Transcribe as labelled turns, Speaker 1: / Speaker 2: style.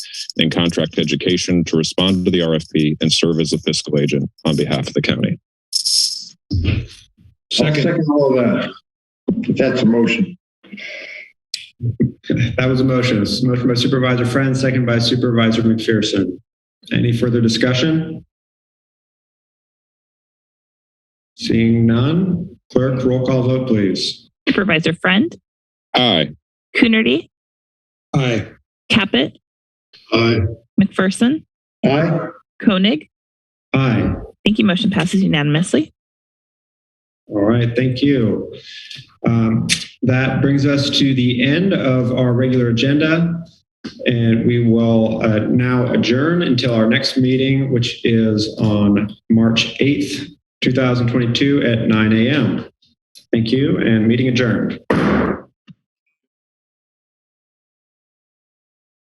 Speaker 1: and contract education to respond to the RFP and serve as a fiscal agent on behalf of the county.
Speaker 2: I'll second all of that. If that's a motion.
Speaker 3: That was a motion. This is a motion by Supervisor Friend, second by Supervisor McPherson. Any further discussion? Seeing none, clerk, roll call vote, please.
Speaker 4: Supervisor Friend,
Speaker 1: Aye.
Speaker 4: Coonerty,
Speaker 3: Aye.
Speaker 4: Caput,
Speaker 2: Aye.
Speaker 4: McPherson,
Speaker 2: Aye.
Speaker 4: Koenig.
Speaker 3: Aye.
Speaker 4: Thank you. Motion passes unanimously.
Speaker 3: All right, thank you. Um, That brings us to the end of our regular agenda. And we will uh, now adjourn until our next meeting, which is on March 8th, 2022 at 9 a.m. Thank you and meeting adjourned.